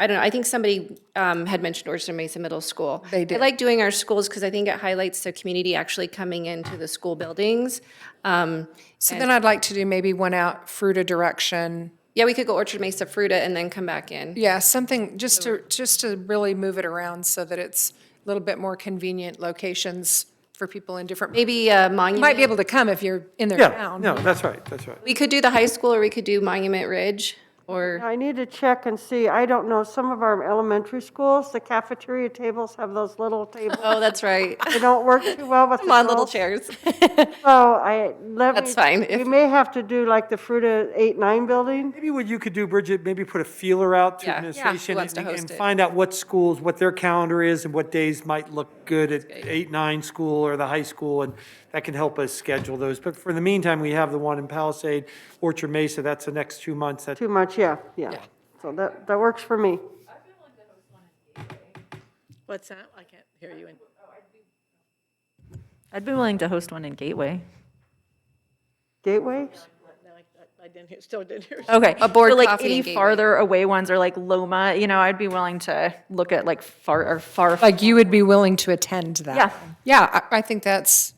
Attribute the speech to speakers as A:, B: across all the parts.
A: I don't know, I think somebody um, had mentioned Orchard Mesa Middle School.
B: They did.
A: I like doing our schools because I think it highlights the community actually coming into the school buildings. Um,
B: So then I'd like to do maybe one out Fruta direction.
A: Yeah, we could go Orchard Mesa Fruta and then come back in.
B: Yeah, something, just to, just to really move it around so that it's a little bit more convenient locations for people in different, you
A: Maybe uh, Monument.
B: might be able to come if you're in their
C: Yeah,
B: town.
C: no, that's right, that's right.
A: We could do the high school or we could do Monument Ridge or,
D: I need to check and see, I don't know, some of our elementary schools, the cafeteria tables have those little tables.
A: oh, that's right.
D: They don't work too well with the
A: Come on, little
D: girls.
A: chairs.
D: So I, let me.
A: That's fine.
D: We
A: If-
D: may have to do like the Fruta 8-9 building.
C: Maybe what you could do, Bridget, maybe put a feeler out to
A: Yeah. Yeah.
C: administration
A: Who wants
C: and
A: to host
C: and
A: it?
C: find out what schools, what their calendar is and what days might look good at eight, nine school or the high school, and that can help us schedule those. But for the meantime, we have the one in Palisade, Orchard Mesa, that's the next two months. That
D: Too much, yeah, yeah. So that, that works for me.
E: What's that? I can't hear you. I'd be willing to host one in Gateway.
D: Gateway?
E: I didn't hear, still didn't hear.
F: Okay.
A: A board
F: Or, like
A: coffee in
F: any
A: Gateway.
F: farther away ones or like Loma, you know, I'd be willing to look at like far or far.
B: Like you would be willing to attend that.
F: Yeah.
B: Yeah, I, I think that's,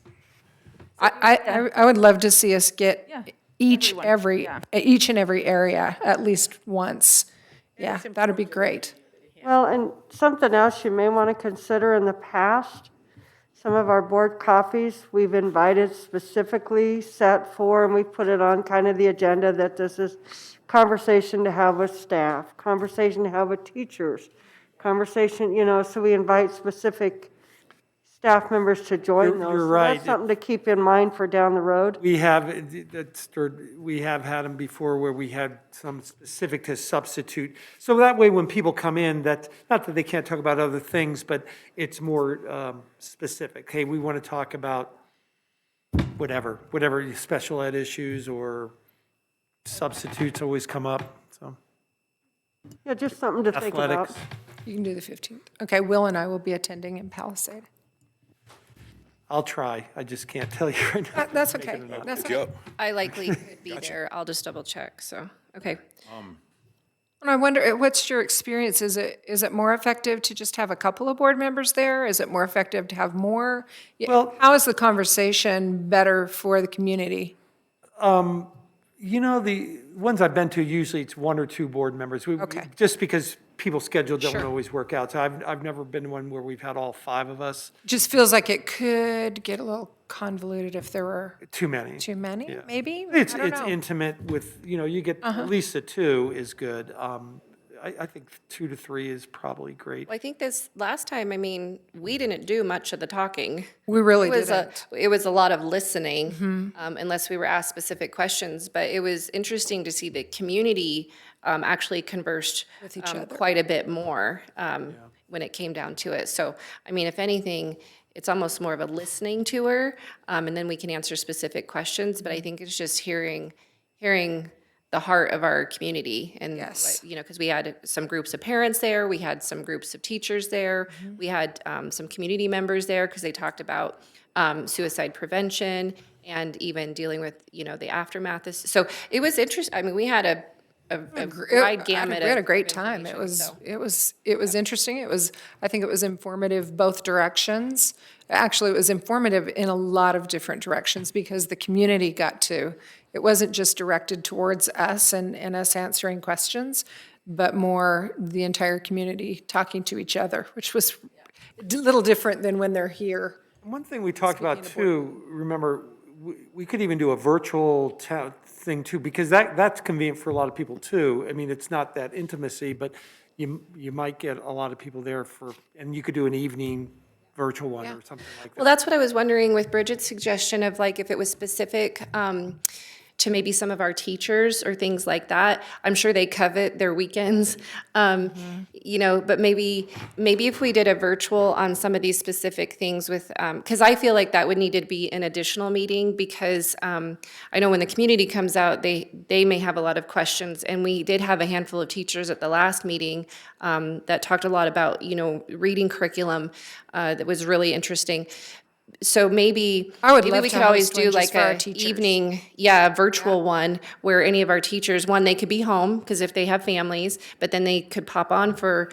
B: I, I, I- I would love to see us get
F: Yeah.
B: each,
F: Everyone,
B: every,
F: yeah.
B: each and every area at least once. Yeah, that'd be great.
D: Well, and something else you may want to consider in the past, some of our board coffees, we've invited specifically set for, and we put it on kind of the agenda that this is conversation to have with staff, conversation to have with teachers, conversation, you know, so we invite specific staff members to join
C: You're-
D: those.
C: you're
D: So
C: right.
D: That's something to keep in mind for down the road.
C: We have, uh, that's, we have had them before where we had some specific to substitute. So that way, when people come in, that, not that they can't talk about other things, but it's more um, specific. Hey, we want to talk about whatever, whatever special ed issues or substitutes always come up, so
D: Yeah, just something to think about.
C: athletics.
B: You can do the 15th. Okay, Will and I will be attending in Palisade.
C: I'll try, I just can't tell you right now.
D: Uh,
B: That- That's okay. That's okay.
G: Yep.
A: I likely could be there. I'll just double check, so, okay.
B: And I wonder, uh, what's your experience? Is it, is it more effective to just have a couple of board members there? Is it more effective to have more? Yeah,
C: Well-
B: How is the conversation better for the community?
C: You know, the ones I've been to, usually it's one or two board members. We- we-
B: Okay.
C: Just because people's schedule doesn't always work out. So I've, I've never been to one where we've had all five of us,
B: Just feels like it could get a little convoluted if there were
C: too many.
B: too many,
C: Yeah.
B: maybe? I
C: It's,
B: don't
C: it's
B: know. Uh-huh.
C: intimate with, you know, you get, at least a two is good. Um, I, I think two to three is probably great.
A: Well, I think this, last time, I mean, we didn't do much of the talking.
B: We really
A: It was a,
B: didn't.
A: it was a lot of listening, um, unless we were asked specific questions. But it was interesting to see the community um, actually conversed With each other. quite a bit more um, when it came down to it. So, I mean, if anything, it's almost more of a listening tour, um, and then we can answer specific questions. But I think it's just hearing, hearing the heart of our community and
B: Yes.
A: what- you know, because we had some groups of parents there, we had some groups of teachers there,
B: Mm-hmm.
A: we had um, some community members there because they talked about um, suicide prevention and even dealing with you know the aftermath. Of, so it was interesting. I mean, we had a, a, a
B: It- I
A: wide
B: had-
A: gamut.
B: We had
A: of
B: a great time. It
A: information,
B: was,
A: so.
B: it was, it was interesting. It was, I think it was informative both directions. Actually, it was informative in a lot of different directions because the community got to, it wasn't just directed towards us and, and us answering questions, but more the entire community talking to each other, which was a little different than when they're here.
C: One thing we talked about too, remember, we- we could even do a virtual ta- thing too, because that, that's convenient for a lot of people too. I mean, it's not that intimacy, but you, you might get a lot of people there for, and you could do an evening virtual one or something like
A: Well,
C: that.
A: that's what I was wondering with Bridget's suggestion of like if it was specific um, to maybe some of our teachers or things like that. I'm sure they covet their weekends, um, you know. But maybe maybe if we did a virtual on some of these specific things with, um, because I feel like that would need to be an additional meeting because um, I know when the community comes out, they they may have a lot of questions, and we did have a handful of teachers at the last meeting um, that talked a lot about you know reading curriculum uh, that was really interesting so maybe
B: I would
A: maybe
B: love
A: we
B: to
A: could always
B: host one
A: do
B: just
A: like
B: for our
A: a
B: teachers.
A: evening, yeah, virtual one where any of our teachers, one they could be home because if they have families, but then they could pop on for